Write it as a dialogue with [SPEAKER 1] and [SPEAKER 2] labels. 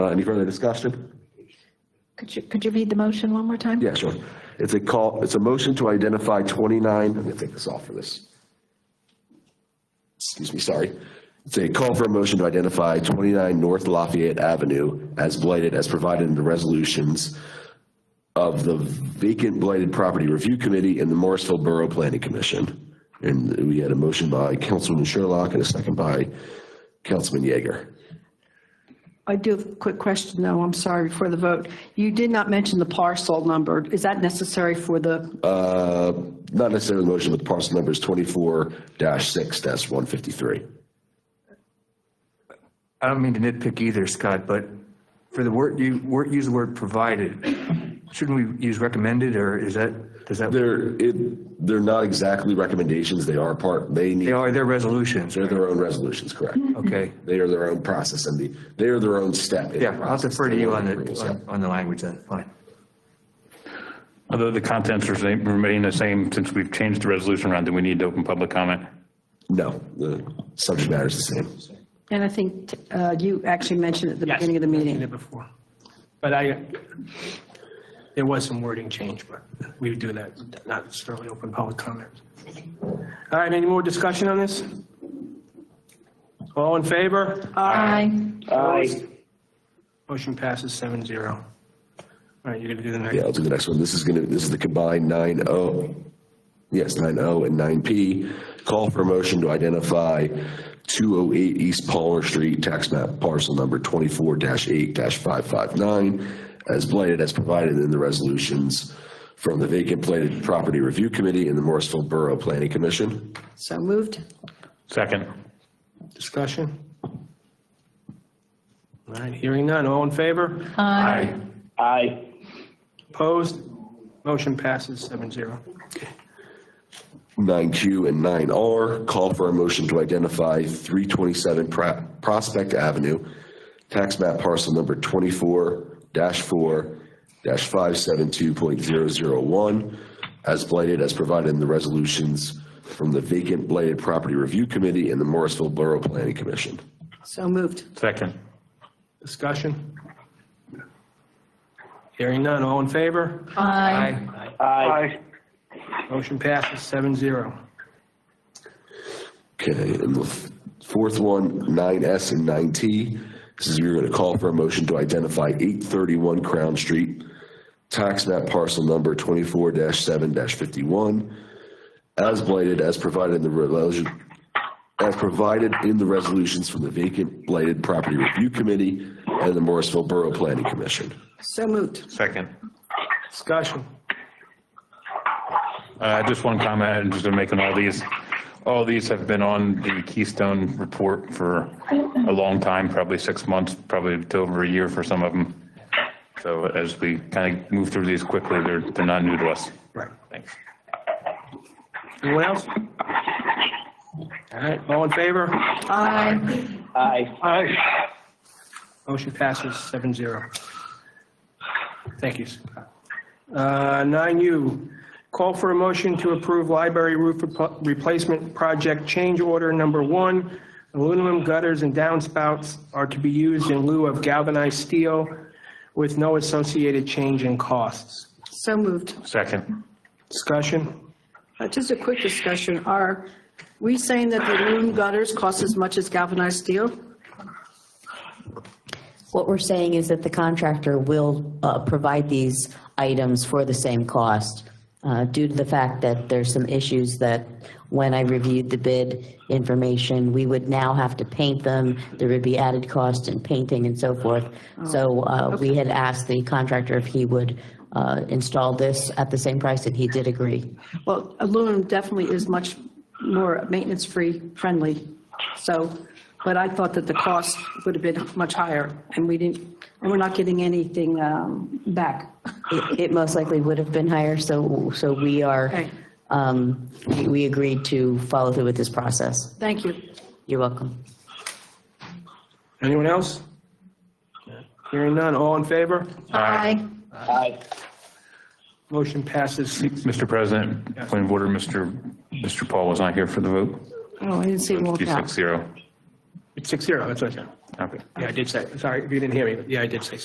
[SPEAKER 1] Uh, Any further discussion?
[SPEAKER 2] Could you, could you read the motion one more time?
[SPEAKER 1] Yeah, sure. It's a call, it's a motion to identify 29, I'm going to take this off for this. Excuse me, sorry. It's a call for a motion to identify 29 North Lafayette Avenue as blighted as provided in the resolutions of the vacant blighted property review committee and the Morrisville Borough Planning Commission. And we had a motion by Councilman Sherlock and a second by Councilman Yeager.
[SPEAKER 2] I do have a quick question, though, I'm sorry, before the vote. You did not mention the parcel number. Is that necessary for the,
[SPEAKER 1] Uh, Not necessarily the motion, but the parcel number is 24-6-153.
[SPEAKER 3] I don't mean to nitpick either, Scott, but for the word, you, word, use the word provided. Shouldn't we use recommended, or is that, does that,
[SPEAKER 1] They're, it, they're not exactly recommendations, they are part, they
[SPEAKER 3] they
[SPEAKER 1] need,
[SPEAKER 3] are, they're resolutions,
[SPEAKER 1] they're their own resolutions, correct?
[SPEAKER 3] okay?
[SPEAKER 1] They are their own process and the, they are their own step. in the
[SPEAKER 3] Yeah, I'll
[SPEAKER 1] process.
[SPEAKER 3] defer to you on the,
[SPEAKER 1] Yeah.
[SPEAKER 3] on- on the language then, fine.
[SPEAKER 4] Although the contents are same- remain the same, since we've changed the resolution around, do we need to open public comment?
[SPEAKER 1] No, the subject matter is the same.
[SPEAKER 2] and I think uh, you actually mentioned at the beginning of the
[SPEAKER 5] mentioned
[SPEAKER 2] meeting.
[SPEAKER 5] it before. But I, there was some wording change, but we would do that, not necessarily open public comment. All right, any more discussion on this? All in favor?
[SPEAKER 2] Aye.
[SPEAKER 5] Aye. Motion passes seven zero. All right, you're gonna do the
[SPEAKER 1] Yeah,
[SPEAKER 5] next.
[SPEAKER 1] I'll do the next one. This is gonna, this is the combined nine O, yes, nine O and nine P. Call for a motion to identify two oh eight East Palmer Street, tax map parcel number twenty-four eight five five nine as blighted as provided in the resolutions from the vacant blighted property review committee and the Morrisville Borough Planning Commission.
[SPEAKER 2] So moved.
[SPEAKER 4] Second.
[SPEAKER 5] Discussion? All right, hearing none, all in favor?
[SPEAKER 4] Aye.
[SPEAKER 6] Aye.
[SPEAKER 5] Opposed? Motion passes seven zero.
[SPEAKER 1] Nine Q and nine R, call for a motion to identify three twenty-seven Prospect Avenue, tax map parcel number twenty-four four five seven two point zero zero one, as blighted as provided in the resolutions from the vacant blighted property review committee and the Morrisville Borough Planning Commission.
[SPEAKER 2] So moved.
[SPEAKER 4] Second.
[SPEAKER 5] Discussion? Hearing none, all in favor?
[SPEAKER 3] Aye.
[SPEAKER 6] Aye.
[SPEAKER 5] Motion passes seven zero.
[SPEAKER 1] Okay, and the f- fourth one, nine S and nine T, this is, you're gonna call for a motion to identify eight thirty-one Crown Street, tax map parcel number twenty-four seven fifty-one, as blighted as provided in the resolution, as provided in the resolutions from the vacant blighted property review committee and the Morrisville Borough Planning Commission.
[SPEAKER 2] So moved.
[SPEAKER 4] Second.
[SPEAKER 5] Discussion.
[SPEAKER 4] Uh, Just one comment, I'm just making all these, all these have been on the Keystone report for a long time, probably six months, probably to over a year for some of them. So as we kind of move through these quickly, they're, they're not new to us.
[SPEAKER 5] Right.
[SPEAKER 4] Thanks.
[SPEAKER 5] Anyone else? All right, all in favor?
[SPEAKER 2] Aye.
[SPEAKER 6] Aye. Aye.
[SPEAKER 5] Motion passes seven zero. Thank you. Uh, Nine U, call for a motion to approve library roof rep- replacement project change order number one. Aluminum gutters and downspouts are to be used in lieu of galvanized steel with no associated change in costs.
[SPEAKER 2] So moved.
[SPEAKER 4] Second.
[SPEAKER 5] Discussion?
[SPEAKER 2] Uh, Just a quick discussion. Are we saying that the aluminum gutters cost as much as galvanized steel?
[SPEAKER 7] What we're saying is that the contractor will uh, provide these items for the same cost uh, due to the fact that there's some issues that when I reviewed the bid information, we would now have to paint them. There would be added cost in painting and so forth. So uh, we had asked the contractor if he would uh, install this at the same price, and he did agree.
[SPEAKER 2] Well, aluminum definitely is much more maintenance-free friendly, so, but I thought that the cost would have been much higher, and we didn't, and we're not getting anything um, back.
[SPEAKER 7] It it most likely would have been higher, so, so we are,
[SPEAKER 2] Okay.
[SPEAKER 7] um, we we agreed to follow through with this process.
[SPEAKER 2] Thank you.
[SPEAKER 7] You're welcome.
[SPEAKER 5] Anyone else? Hearing none, all in favor?
[SPEAKER 2] Aye.
[SPEAKER 6] Aye.
[SPEAKER 5] Motion passes six
[SPEAKER 4] Mr. President, point of order, Mr. Mr. Paul was not here for the vote.
[SPEAKER 2] Oh, I didn't see it
[SPEAKER 4] It'd
[SPEAKER 2] rolled
[SPEAKER 4] be
[SPEAKER 2] out.
[SPEAKER 4] Six zero.
[SPEAKER 5] Six zero, that's what I said.
[SPEAKER 4] Okay.
[SPEAKER 5] Yeah, I did say, sorry, if you didn't hear me, yeah, I did say